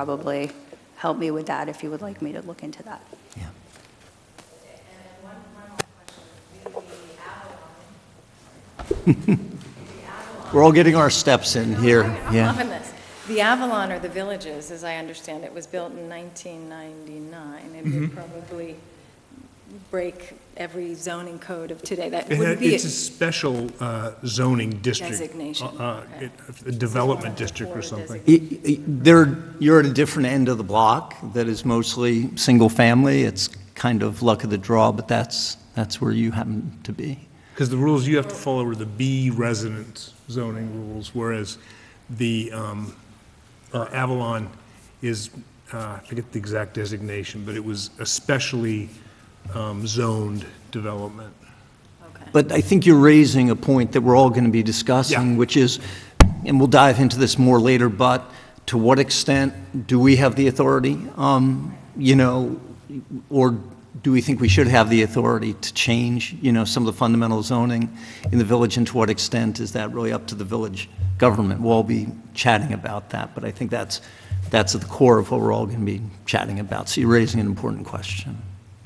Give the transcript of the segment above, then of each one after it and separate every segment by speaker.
Speaker 1: probably help me with that if you would like me to look into that.
Speaker 2: Yeah. We're all getting our steps in here, yeah.
Speaker 3: On this. The Avalon or the Villages, as I understand it, was built in 1999. It would probably break every zoning code of today. That
Speaker 4: It
Speaker 3: would
Speaker 4: had-
Speaker 3: be,
Speaker 4: It's a special uh, zoning district.
Speaker 3: Designation,
Speaker 4: uh, uh,
Speaker 3: okay.
Speaker 4: it- A development district or
Speaker 3: Or
Speaker 4: something.
Speaker 2: Y- y- There, you're at a different end of the block that is mostly single-family. It's kind of luck of the draw, but that's, that's where you happen to be.
Speaker 4: Because the rules you have to follow are the B resident zoning rules, whereas the um, uh, Avalon is, uh, I forget the exact designation, but it was a specially um, zoned development.
Speaker 3: okay.
Speaker 2: But I think you're raising a point that we're all going to be discussing,
Speaker 4: Yeah.
Speaker 2: which is, and we'll dive into this more later, but to what extent do we have the authority? um, You know, or do we think we should have the authority to change, you know, some of the fundamental zoning in the village? And to what extent is that really up to the village government? We'll all be chatting about that, but I think that's, that's at the core of what we're all going to be chatting about. So you're raising an important question.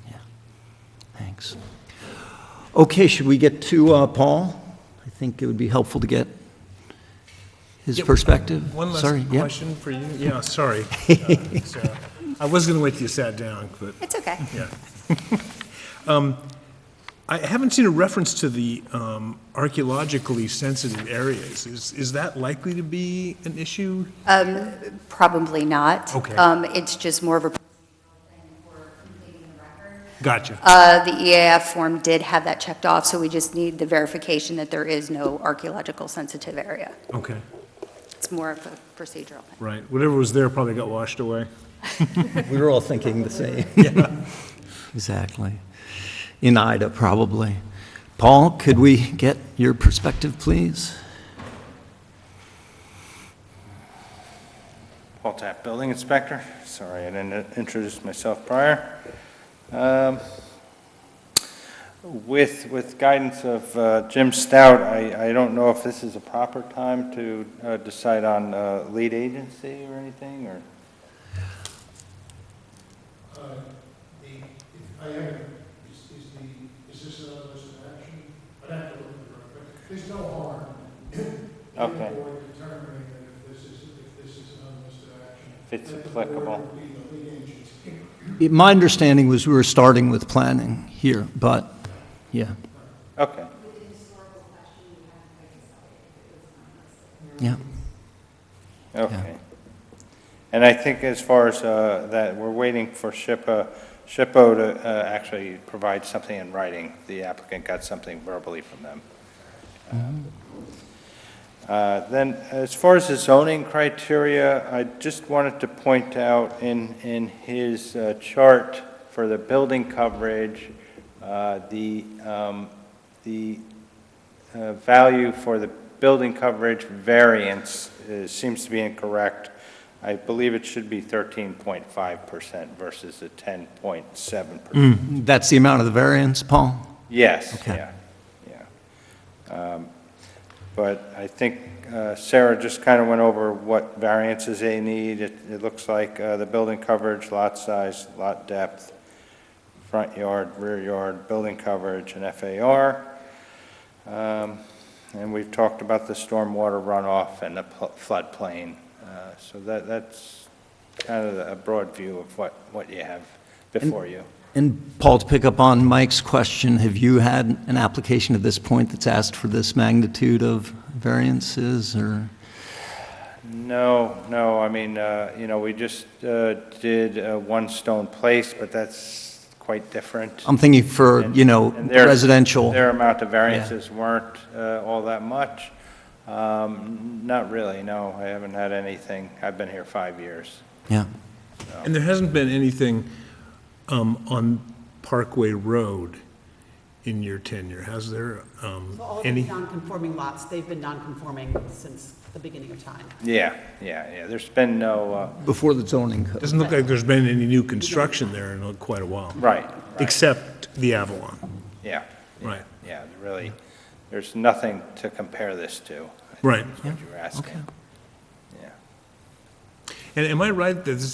Speaker 2: Yeah, thanks. Okay, should we get to uh, Paul? I think it would be helpful to get his perspective.
Speaker 4: One
Speaker 2: Sorry,
Speaker 4: last
Speaker 2: yeah.
Speaker 4: question for you. Yeah, sorry. uh, Sarah. I was going to wait till you sat down, but.
Speaker 1: It's okay.
Speaker 4: Yeah. Um, I haven't seen a reference to the um, archaeologically sensitive areas. Is, is that likely to be an issue?
Speaker 1: Probably not.
Speaker 4: Okay.
Speaker 1: Um, It's just more of a
Speaker 4: Gotcha.
Speaker 1: Uh, The EAF form did have that checked off, so we just need the verification that there is no archaeological sensitive area.
Speaker 4: Okay,
Speaker 1: It's more of a procedural thing.
Speaker 4: right. Whatever was there probably got washed away.
Speaker 2: We were all thinking the same. Exactly. In Ida, probably. Paul, could we get your perspective, please?
Speaker 5: Paul Tapp, Building Inspector. Sorry, I didn't introduce myself prior. Um, With, with guidance of uh, Jim Stout, I, I don't know if this is a proper time to uh, decide on uh, lead agency or anything, or,
Speaker 6: Uh, I am, is, is the, is this another list of action? I'd have to look at it, but there's no harm
Speaker 5: okay,
Speaker 6: in determining that if this is, if this is an unlisted action,
Speaker 5: if it's applicable.
Speaker 6: we the lead agency.
Speaker 2: It- My understanding was we were starting with planning here, but, yeah,
Speaker 5: Okay,
Speaker 2: yeah.
Speaker 5: okay. And I think as far as uh, that, we're waiting for SHPO, SHPO to uh, actually provide something in writing. The applicant got something verbally from them. Uh, Then, as far as the zoning criteria, I just wanted to point out in, in his uh, chart for the building coverage, uh, the, um, the uh, value for the building coverage variance uh, seems to be incorrect. I believe it should be 13.5% versus the 10.7%.
Speaker 4: Hmm.
Speaker 2: That's the amount of the variance, Paul?
Speaker 5: Yes,
Speaker 2: Okay.
Speaker 5: yeah, yeah. Um, But I think uh, Sarah just kind of went over what variances they need. It, it looks like uh, the building coverage, lot size, lot depth, front yard, rear yard, building coverage, and FAR. Um, And we've talked about the stormwater runoff and the pl- floodplain. Uh, So that, that's kind of a broad view of what, what you have before you.
Speaker 2: And Paul, to pick up on Mike's question, have you had an application at this point that's asked for this magnitude of variances, or?
Speaker 5: No, no, I mean, uh, you know, we just uh, did uh, One Stone Place, but that's quite different.
Speaker 2: I'm thinking for, you know,
Speaker 5: And their-
Speaker 2: Um, residential.
Speaker 5: Their amount of variances weren't uh, all that much. Um, Not really, no, I haven't had anything. I've been here five years.
Speaker 2: Yeah,
Speaker 4: And there hasn't been anything um, on Parkway Road in your tenure, has there? um,
Speaker 7: So all
Speaker 4: Any?
Speaker 7: these non-conforming lots, they've been non-conforming since the beginning of time.
Speaker 5: Yeah, yeah, yeah, there's been no, uh,
Speaker 2: before the zoning code.
Speaker 4: Doesn't look like there's been any new construction there in quite a while.
Speaker 5: right, right,
Speaker 4: Except the Avalon,
Speaker 5: yeah,
Speaker 4: right,
Speaker 5: yeah, really, there's nothing to compare this to,
Speaker 4: right.
Speaker 5: is what you're asking. Yeah.
Speaker 4: And am I right that this